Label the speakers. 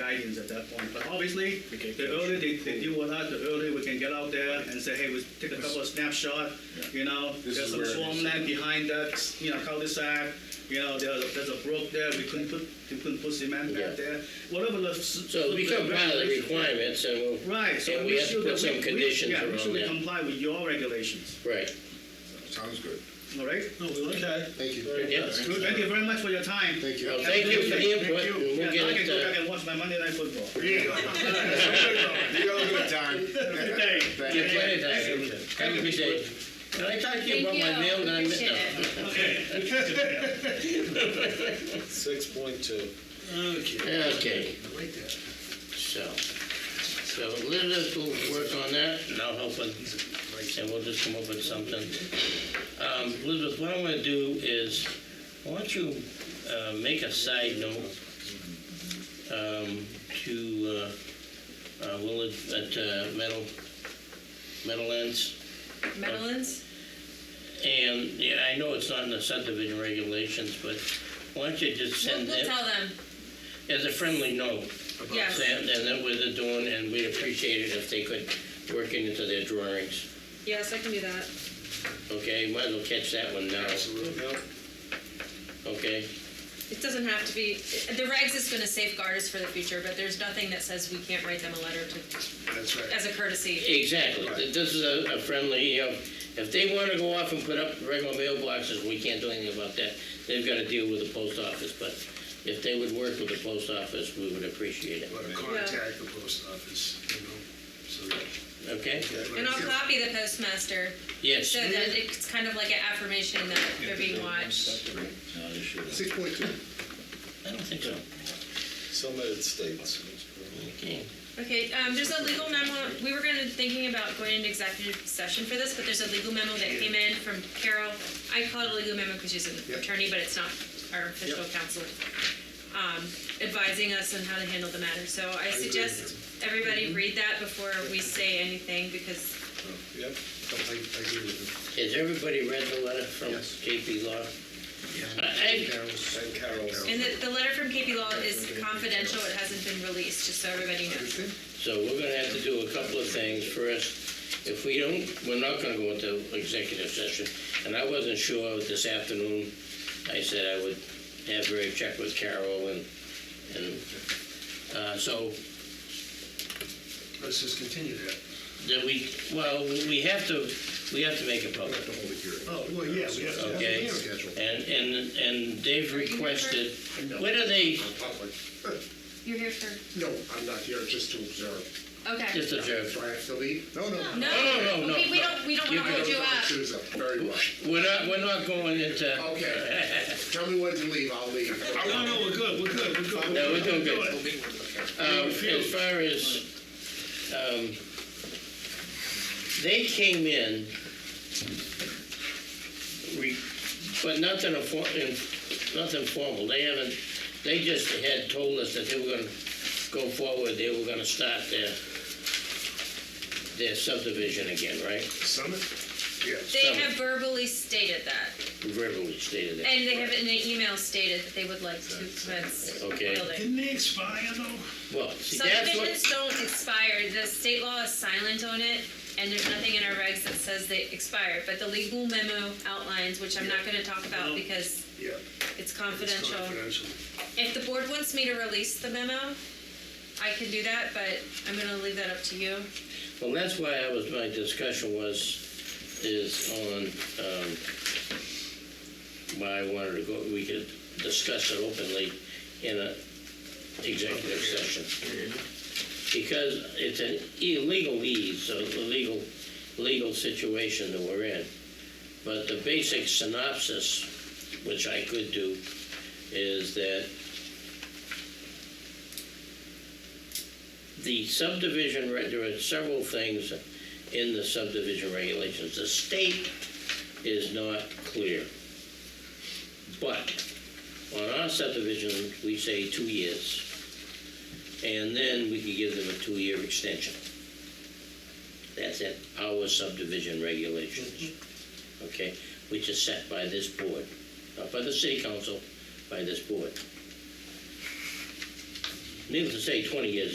Speaker 1: guidance at that point. But obviously,
Speaker 2: Okay.
Speaker 1: the earlier they, they deal with us, the earlier we can get out there and say, hey, we take a couple of snapshot, you know,
Speaker 2: This
Speaker 1: there's
Speaker 2: is
Speaker 1: some
Speaker 2: where it is.
Speaker 1: swampland behind that, you know, cul-de-sac, you know, there's, a- there's a brook there, we couldn't put, we couldn't put cement
Speaker 3: Yeah.
Speaker 1: back there, whatever the.
Speaker 3: So it become part of the requirements and we'll.
Speaker 1: Right, so.
Speaker 3: And we
Speaker 1: make
Speaker 3: have to
Speaker 1: sure
Speaker 3: put
Speaker 1: that
Speaker 3: some
Speaker 1: we- we-
Speaker 3: conditions
Speaker 1: yeah, make
Speaker 3: around
Speaker 1: sure we
Speaker 3: that.
Speaker 1: comply with your regulations,
Speaker 3: Right,
Speaker 4: Sounds good.
Speaker 1: all right?
Speaker 5: No, we like that.
Speaker 4: Thank you.
Speaker 3: yeah.
Speaker 1: Thank you very much for your time.
Speaker 4: Thank
Speaker 3: Well,
Speaker 4: you.
Speaker 3: thank you for the input
Speaker 4: Thank you.
Speaker 3: and
Speaker 1: Yeah,
Speaker 3: we'll
Speaker 1: now I
Speaker 3: get
Speaker 1: can go back
Speaker 3: it, uh,
Speaker 1: and watch my Monday night football.
Speaker 4: There you go. You all good time.
Speaker 1: Thank you.
Speaker 3: uh,
Speaker 4: Thank
Speaker 3: get
Speaker 4: you.
Speaker 3: plenty of time. Have a good day. Can I talk to you about my mail that I missed?
Speaker 6: Appreciate
Speaker 3: No.
Speaker 6: it.
Speaker 2: Six point two.
Speaker 5: Okay.
Speaker 3: Okay, so, so Elizabeth will work on that, and I'll help her, and we'll just come up with something. Um, Elizabeth, what I'm gonna do is, I want you, uh, make a side note, um, to, uh, uh, Willard at, uh, Metal, Metal Ends.
Speaker 6: Medellin's?
Speaker 3: And, yeah, I know it's not in the subdivision regulations, but why don't you just
Speaker 6: We'll,
Speaker 3: send
Speaker 6: we'll
Speaker 3: them
Speaker 6: tell them,
Speaker 3: as a friendly note?
Speaker 6: yes.
Speaker 3: And then what they're doing, and we'd appreciate it if they could work it into their drawings.
Speaker 6: Yes, I can do that.
Speaker 3: Okay, might as well catch that one now, okay?
Speaker 6: It doesn't have to be, the regs is gonna safeguard us for the future, but there's nothing that says we can't write them a letter to,
Speaker 4: That's right.
Speaker 6: as a courtesy.
Speaker 3: Exactly, this is a a friendly, you know, if they want to go off and put up regular mailboxes, we can't do anything about that. They've got to deal with the post office, but if they would work with the post office, we would appreciate it,
Speaker 4: Let her contact the post office, you know, so that.
Speaker 3: okay?
Speaker 6: And I'll copy the postmaster,
Speaker 3: Yes.
Speaker 6: so that it's kind of like an affirmation that they're being watched.
Speaker 4: Six point two.
Speaker 3: I don't think so.
Speaker 2: Some United States.
Speaker 3: Okay.
Speaker 6: Okay, um, there's a legal memo, we were gonna, thinking about going into executive session for this, but there's a legal memo that came in from Carol. I call it a legal memo because she's an
Speaker 4: Yep.
Speaker 6: attorney, but it's not our official counsel. Um, advising us on how to handle the matter, so I suggest
Speaker 3: Mm-hmm.
Speaker 6: everybody read that before we say anything, because
Speaker 2: Yep.
Speaker 4: I, I agree with
Speaker 3: Has everybody read the letter from KP Law?
Speaker 4: you.
Speaker 3: I-
Speaker 4: Carol's.
Speaker 2: And Carol's.
Speaker 6: And the, the letter from KP Law is confidential, it hasn't been released, just so everybody knows.
Speaker 3: So we're gonna have to do a couple of things. First, if we don't, we're not gonna go into executive session. And I wasn't sure this afternoon, I said I would have Ray check with Carol and, and, uh, so
Speaker 4: Let's just continue that.
Speaker 3: that we, well, we have to, we have to make it public.
Speaker 4: The whole hearing. Oh, well, yeah, we have to.
Speaker 3: Okay. And, and, and they've requested, when are they,
Speaker 4: Public.
Speaker 6: You're here for,
Speaker 4: No, I'm not here just to observe.
Speaker 6: okay.
Speaker 3: just observe,
Speaker 4: Do I have to leave? No, no.
Speaker 6: No,
Speaker 3: No, no, no,
Speaker 6: okay, we
Speaker 3: no.
Speaker 6: don't, we don't wanna
Speaker 3: You
Speaker 6: hold you up.
Speaker 4: Shoes up, very right.
Speaker 3: we're not, we're not going into.
Speaker 4: Okay. Tell me when to leave, I'll leave.
Speaker 5: No, no, we're good, we're good, we're good.
Speaker 3: No, we're doing good.
Speaker 4: Okay.
Speaker 3: Um, as far as, um, they came in, re- but nothing, affor- in- nothing formal, they haven't, they just had told us that they were gonna go forward, they were gonna start their, their subdivision again, right?
Speaker 4: Summit? Yes.
Speaker 6: They have verbally stated that,
Speaker 3: Verbally stated that.
Speaker 6: and they have in an email stated that they would like to commence
Speaker 3: Okay.
Speaker 6: building.
Speaker 5: Didn't they expire though?
Speaker 3: Well, see, that's what,
Speaker 6: Subdivisions don't expire, the state law is silent on it, and there's nothing in our regs that says they expire, but the legal memo outlines, which I'm not gonna talk about because
Speaker 4: Yeah.
Speaker 6: it's
Speaker 4: It's
Speaker 6: confidential.
Speaker 4: confidential.
Speaker 6: If the board wants me to release the memo, I can do that, but I'm gonna leave that up to you.
Speaker 3: well, that's why I was, my discussion was, is on, um, why I wanted to go, we could discuss it openly in a executive session. Because it's an illegal lead, so it's a legal, legal situation that we're in. But the basic synopsis, which I could do, is that the subdivision, re- there are several things in the subdivision regulations. The state is not clear. But on our subdivision, we say two years. And then we could give them a two-year extension. That's at our subdivision regulations, okay? Which is set by this board, not by the city council, by this board. needless to say, twenty years